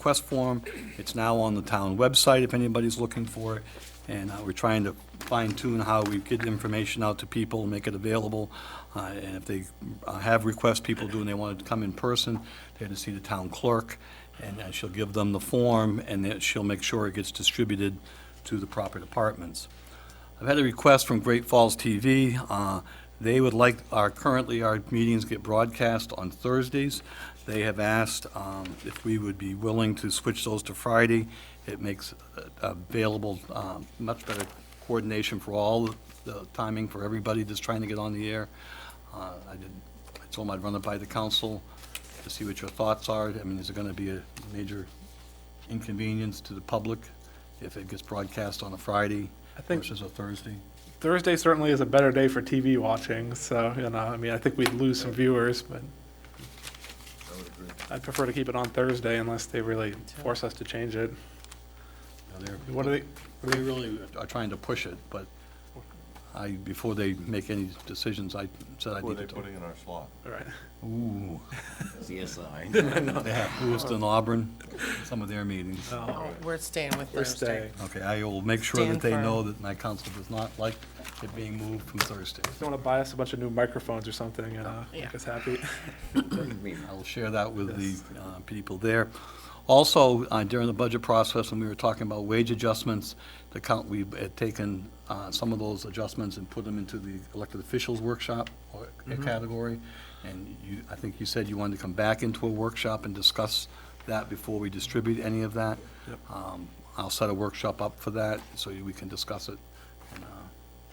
request form. It's now on the town website if anybody's looking for it. And uh, we're trying to fine tune how we get information out to people, make it available. Uh, And if they uh, have requests people do and they want to come in person, they had to see the town clerk. And uh, she'll give them the form and then she'll make sure it gets distributed to the proper departments. I've had a request from Great Falls TV. Uh, They would like, our, currently, our meetings get broadcast on Thursdays. They have asked um, if we would be willing to switch those to Friday. It makes uh, available um, much better coordination for all, the timing for everybody that's trying to get on the air. Uh, I did, I told them I'd run it by the council to see what your thoughts are. I mean, is it going to be a major inconvenience to the public if it gets broadcast on a Friday I think- versus a Thursday? Thursday certainly is a better day for TV watching, so, you know, I mean, I think we'd lose some viewers, but I would agree. I'd prefer to keep it on Thursday unless they really force us to change it. Now, they're- What do they, They really are trying to push it, but I, before they make any decisions, I said I Who are they needed to. putting in our slot? all right. Ooh, CSI. yeah, Lewiston, Auburn, some of their meetings. No, Oh, We're staying with We're Thursday. staying. Okay, I will make sure that Stand they firm. know that my council does not like it being moved from Thursday. Don't want to buy us a bunch of new microphones or something and uh, Yeah. make us happy. I will share that with the uh, people there. Also, uh, during the budget process, when we were talking about wage adjustments, the count, we had taken uh, some of those adjustments and put them into the elected officials workshop or category. And you, I think you said you wanted to come back into a workshop and discuss that before we distribute any of that. Yep. Um, I'll set a workshop up for that, so we can discuss it, and uh,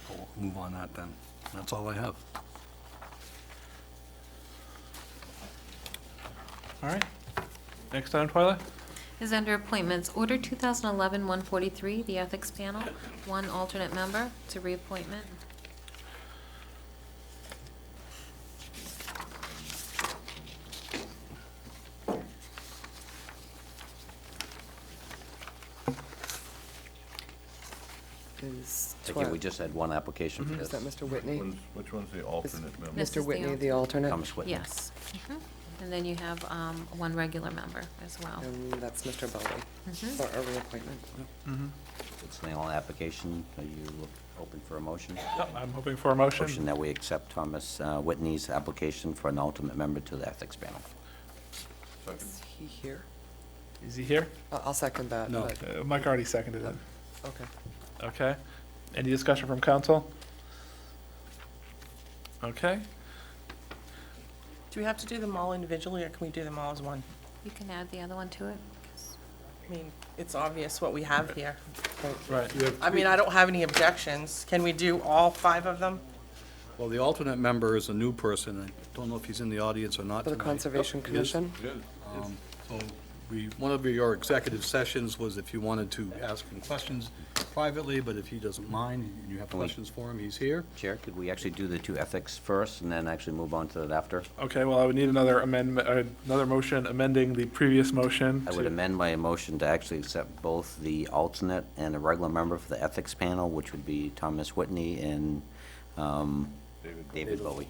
we'll move on that then. That's all I have. All right. Next item, Twyla? is under appointments. Order 2011-143, the Ethics Panel, one alternate member, it's a reappointment. Is Again, we Twyla- just had one application for is that this. Mr. What Whitney? is- Which one's the alternate member? This is the Mr. Whitney, alternate. the alternate? Thomas Whitney. Yes. Mhm. And then you have um, one regular member as well. And that's Mr. Bowie Mhm. for a reappointment. It's the only application. Are you open for a motion? Yep, I'm hoping for a Motion motion. that we accept Thomas uh, Whitney's application for an alternate member to the Ethics Panel. Second. Is he here? Is he here? I- I'll second that. No. but- Uh, Mike already seconded it. Okay. Okay. Any discussion from council? Okay. Do we have to do them all individually, or can we do them all as one? You can add the other one to it. 'cause- I mean, it's obvious what we have here. Right. you have- I mean, I don't have any objections. Can we do all five of them? Well, the alternate member is a new person, I don't know if he's in the audience or not For the tonight. Conservation He is. Commission? Um, So, we, one of your executive sessions was if you wanted to ask him questions privately, but if he doesn't mind, and you have Wait. questions for him, he's here. Chair, could we actually do the two ethics first and then actually move on to that after? Okay, well, I would need another amendment, uh, another motion amending the previous motion. I would to- amend my motion to actually accept both the alternate and a regular member for the Ethics Panel, which would be Thomas Whitney and um, David, David Bowie.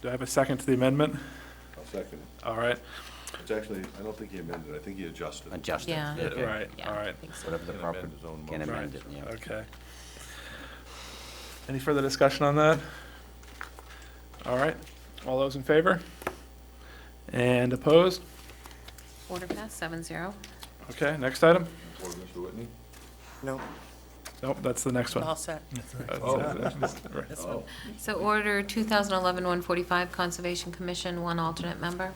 Do I have a second to the amendment? I'll second it. All right, It's actually, I don't think he amended, it. I think he adjusted. it. Adjusted. Yeah. yeah, all right, yeah, all I right. think so. Uh, Whatever the Can proper, amend his own can motion. amend it, yeah. Okay. Any further discussion on that? All right, all those in favor? And opposed? Order passed, seven zero. Okay, next item? Or Mr. Whitney? No. Nope, that's the next All one. set? That's, Oh. uh, right. Oh, So order 2011-145, Conservation Commission, one alternate member.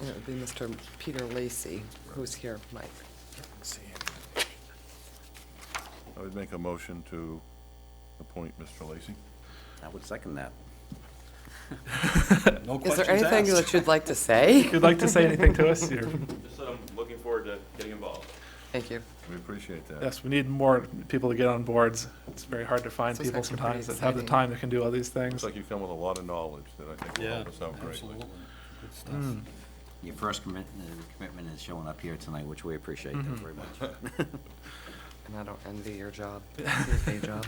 And it would be Mr. Peter Lacy, who's here, Mike. I would make a motion to appoint Mr. Lacy. I would second that. No Is there questions anything asked. that you'd like to say? If you'd like to say anything to us, you're- Just that I'm looking forward to getting involved. Thank you. We appreciate that. yes, we need more people to get on boards. It's very hard to find This was people actually pretty sometimes that have the exciting. time that can do all these things. Looks like you come with a lot of knowledge that I think will Yeah, help us out greatly. absolutely. Good stuff. Hmm. Hmm. Your first commit- uh, commitment is showing up here tonight, which we appreciate that very much. And I don't envy your job, your day job.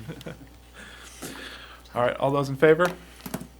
All right, all those in favor?